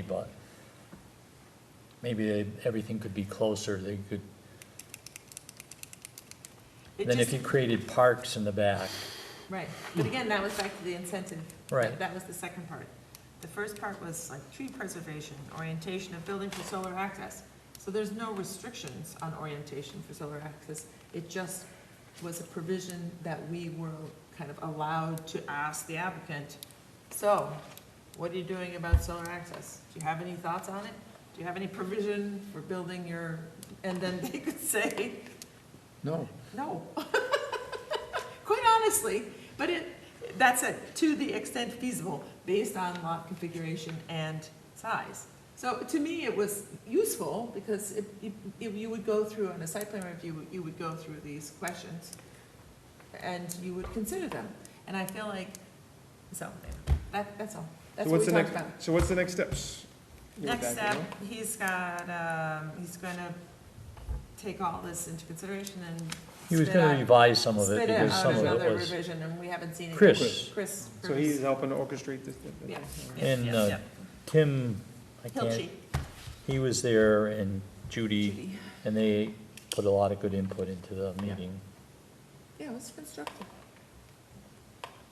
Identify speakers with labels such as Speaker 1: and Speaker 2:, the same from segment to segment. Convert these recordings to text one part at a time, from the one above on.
Speaker 1: but maybe they- everything could be closer, they could,
Speaker 2: It
Speaker 1: then if
Speaker 2: just-
Speaker 1: you created parks in the back,
Speaker 2: Right, but again, that was back to the incentive.
Speaker 1: Right.
Speaker 2: That was the second part. The first part was like tree preservation, orientation of building for solar access. So there's no restrictions on orientation for solar access. It just was a provision that we were kind of allowed to ask the applicant, so, what are you doing about solar access? Do you have any thoughts on it? Do you have any provision for building your, and then they could say,
Speaker 1: no,
Speaker 2: no. Quite honestly, but it, that's it, to the extent feasible, based on lot configuration and size. So to me, it was useful, because if, if- if you would go through, on a site plan review, you would go through these questions, and you would consider them. And I feel like, so, anyway, that, that's all, that's what we
Speaker 3: So what's the
Speaker 2: talked
Speaker 3: next?
Speaker 2: about.
Speaker 3: So what's the next steps? with
Speaker 2: Next step,
Speaker 3: that, you know?
Speaker 2: he's got, um, he's gonna take all this into consideration and.
Speaker 1: he was
Speaker 2: spit
Speaker 1: gonna
Speaker 2: out-
Speaker 1: revise some of it
Speaker 2: Spit
Speaker 1: because
Speaker 2: out
Speaker 1: some of
Speaker 2: another
Speaker 1: it was,
Speaker 2: revision, and we haven't seen it.
Speaker 1: Chris.
Speaker 2: Chris.
Speaker 3: So he's helping to orchestrate this. this- this-
Speaker 2: Yeah.
Speaker 3: all right.
Speaker 1: and, uh,
Speaker 2: Yeah.
Speaker 1: Tim, I
Speaker 2: Hilchi.
Speaker 1: can't, he was there and Judy,
Speaker 2: Judy.
Speaker 1: and they put a lot of good input into the
Speaker 2: Yeah.
Speaker 1: meeting.
Speaker 2: Yeah, it was constructive.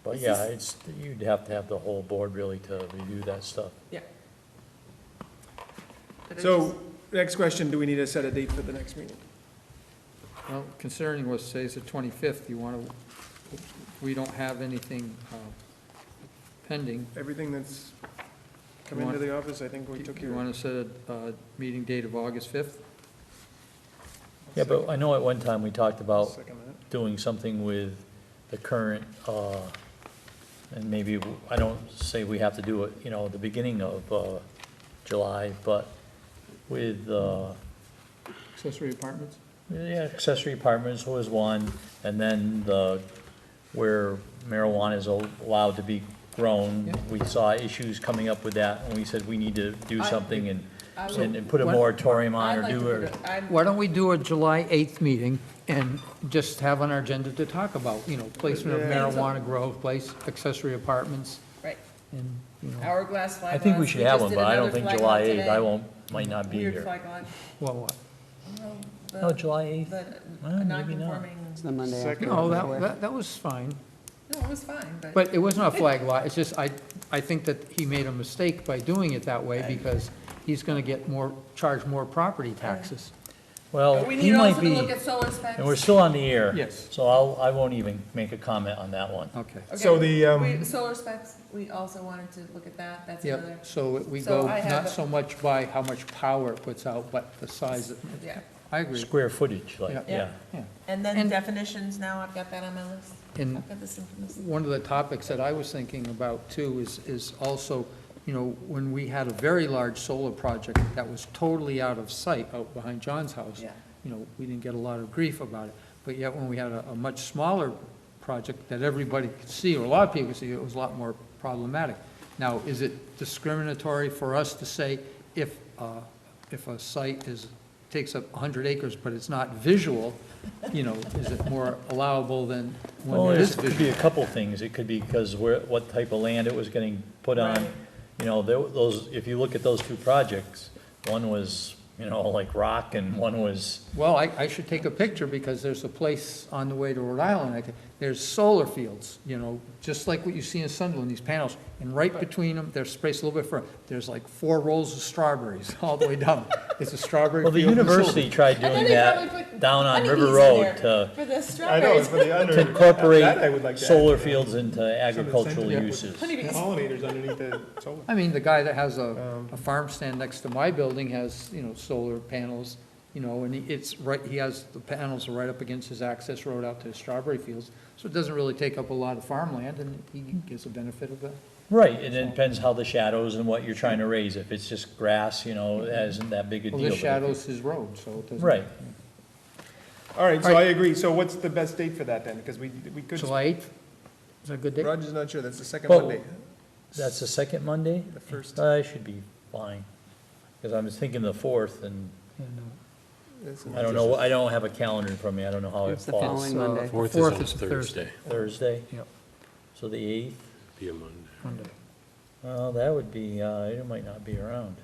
Speaker 1: But
Speaker 2: This
Speaker 1: yeah, it's, you'd have to have the whole board really to review that stuff.
Speaker 2: but it was-
Speaker 3: So, next question, do we need to set a date for the next meeting?
Speaker 4: Well, concerning was, say, it's the 25th, you want to, we don't have anything uh, pending.
Speaker 3: Everything that's come
Speaker 4: You
Speaker 3: into
Speaker 4: want-
Speaker 3: the office, I think we took
Speaker 4: Do you
Speaker 3: care of.
Speaker 4: want to set a uh, meeting date of August 5th?
Speaker 1: Yeah, but I know at one time we talked about
Speaker 3: Second that.
Speaker 1: doing something with the current, uh, and maybe, w- I don't say we have to do it, you know, the beginning of, uh, July, but with, uh,
Speaker 4: Accessory apartments?
Speaker 1: yeah, accessory apartments was one, and then the, where marijuana is al- allowed to be grown.
Speaker 4: Yeah.
Speaker 1: We saw issues coming up with that, and we said we need to do
Speaker 2: I-
Speaker 1: something and,
Speaker 2: I would-
Speaker 1: and and put a
Speaker 4: What-
Speaker 1: moratorium on
Speaker 2: I'd
Speaker 1: or
Speaker 2: like to
Speaker 1: do,
Speaker 2: put
Speaker 1: or,
Speaker 2: it, I'm,
Speaker 4: Why don't we do a July 8th meeting and just have on our agenda to talk about, you know, placement of
Speaker 3: Yeah.
Speaker 4: marijuana grow, place, accessory apartments,
Speaker 2: right,
Speaker 4: and, you know,
Speaker 2: hourglass flag
Speaker 1: I think we
Speaker 2: lots.
Speaker 1: should have
Speaker 2: just
Speaker 1: one,
Speaker 2: did
Speaker 1: but I don't
Speaker 2: another
Speaker 1: think
Speaker 2: flag
Speaker 1: July
Speaker 2: lot
Speaker 1: eighth, I
Speaker 2: today.
Speaker 1: won't, might not be
Speaker 2: Weird
Speaker 1: here.
Speaker 2: flag lot.
Speaker 4: well, what?
Speaker 2: Well, the-
Speaker 1: No, July eighth,
Speaker 2: The
Speaker 1: Well, maybe not.
Speaker 2: non-conforming,
Speaker 5: It's the Monday
Speaker 3: Second. Oh,
Speaker 5: after.
Speaker 4: No, Oh, that, that, that was fine,
Speaker 2: no, it was fine, but.
Speaker 4: but it was not a flag lot, it's just, I, I think that he made a mistake by doing it that way, because he's gonna get more, charge more property taxes.
Speaker 1: Well,
Speaker 2: But we
Speaker 1: he
Speaker 2: need
Speaker 1: might
Speaker 2: also
Speaker 1: be.
Speaker 2: to look at solar specs.
Speaker 1: And we're still on the air.
Speaker 4: Yes.
Speaker 1: So I'll, I won't even make a comment on that one.
Speaker 4: Okay.
Speaker 2: Okay,
Speaker 3: So the, um,
Speaker 2: we- Solar specs, we also wanted to look at that, that's another,
Speaker 4: Yep, so we
Speaker 2: So
Speaker 4: go
Speaker 2: I have
Speaker 4: not
Speaker 2: a-
Speaker 4: so much by how much power it puts out, but the size. of-
Speaker 2: yeah.
Speaker 4: I agree,
Speaker 1: Square footage, like,
Speaker 2: Yeah.
Speaker 1: yeah.
Speaker 4: yeah.
Speaker 2: And then
Speaker 4: And-
Speaker 2: definitions, now I've got that on my list.
Speaker 4: And
Speaker 2: I've got this information.
Speaker 4: one of the topics that I was thinking about too is, is also, you know, when we had a very large solar project that was totally out of sight out behind John's house.
Speaker 2: Yeah.
Speaker 4: You know, we didn't get a lot of grief about it, but yet when we had a, a much smaller project that everybody could see, or a lot of people could see, it was a lot more problematic. Now, is it discriminatory for us to say if, uh, if a site is, takes up hundred acres, but it's not visual, you know, is it more allowable than
Speaker 1: Well,
Speaker 4: when it
Speaker 1: there's,
Speaker 4: is
Speaker 1: could
Speaker 4: visual?
Speaker 1: be a couple things. It could be because where, what type of land it was getting put on.
Speaker 2: Right.
Speaker 1: You know, there- those, if you look at those two projects, one was, you know, like rock and one was,
Speaker 4: Well, I, I should take a picture because there's a place on the way to Rhode Island, I think, there's solar fields, you know, just like what you see in Sunderland, these panels. And right between them, they're spaced a little bit further, there's like four rolls of strawberries all the way down. It's a strawberry
Speaker 1: well,
Speaker 4: field.
Speaker 1: the
Speaker 4: and solar-
Speaker 1: university tried
Speaker 2: And then
Speaker 1: doing
Speaker 2: they probably
Speaker 1: that
Speaker 2: put
Speaker 1: down on
Speaker 2: honeybees
Speaker 1: River
Speaker 2: in
Speaker 1: Road uh,
Speaker 2: there
Speaker 1: to
Speaker 2: For the
Speaker 3: I know,
Speaker 2: strawberries.
Speaker 3: it's for the under.
Speaker 1: to
Speaker 3: that I would like
Speaker 1: incorporate
Speaker 3: to add.
Speaker 1: solar fields into agricultural
Speaker 3: yeah.
Speaker 1: uses.
Speaker 2: Honeybees.
Speaker 3: Pollinators underneath the solar.
Speaker 4: I mean, the guy that has
Speaker 1: Um,
Speaker 4: a, a farm stand next to my building has, you know, solar panels, you know, and he- it's right, he has, the panels are right up against his access road out to his strawberry fields. So it doesn't really take up a lot of farmland and he gets the benefit of that.
Speaker 1: Right, and it depends how the shadows and what you're trying to raise. If it's just grass, you know, that isn't that big a deal.
Speaker 4: Well, this
Speaker 1: but if
Speaker 4: shadows his road, so it doesn't.
Speaker 1: Right.
Speaker 3: All right, so I agree. So what's the best date for that then? Because we, we could,
Speaker 4: July 8th, is that a good date?
Speaker 3: Roger's not sure, that's the second
Speaker 1: Well-
Speaker 3: Monday.
Speaker 1: That's the second Monday?
Speaker 3: The first.
Speaker 1: I should be fine, because I was thinking the fourth, and
Speaker 3: That's-
Speaker 1: I don't know, I don't have a calendar in front of me, I don't know how it
Speaker 5: It's the
Speaker 1: falls.
Speaker 5: following Monday.
Speaker 6: Fourth is on Thursday,
Speaker 1: Thursday,
Speaker 4: Yep,
Speaker 1: so the eighth,
Speaker 6: be a Monday.
Speaker 4: Monday.
Speaker 1: well, that would be, uh, I might not be around.